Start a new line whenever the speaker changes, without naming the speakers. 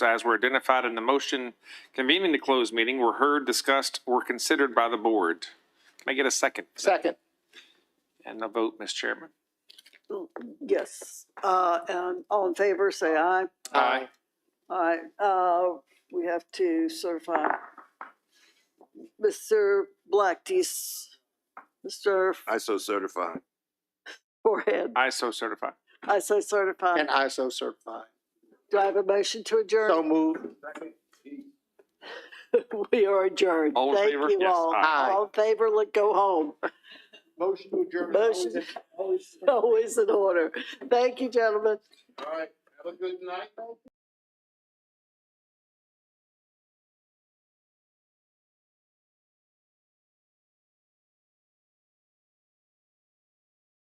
as were identified in the motion convening the closed meeting were heard, discussed, or considered by the board. Can I get a second?
Second.
And a vote, Ms. Chairman?
Yes, uh, and all in favor, say aye.
Aye.
Aye, uh, we have to certify. Mr. Black, do you s- Mr.
I so certify.
Forehead,
I so certify.
I so certify.
Uh, And ISO certified.
Do I have a motion to
So
adjourn?
move.
We are adjourned.
All in
Thank
favor?
you
Yes,
all.
aye.
All in favor, let go home.
Motion to adjourn.
Motion. Always in order. Thank you, gentlemen.
All right. Have a good night.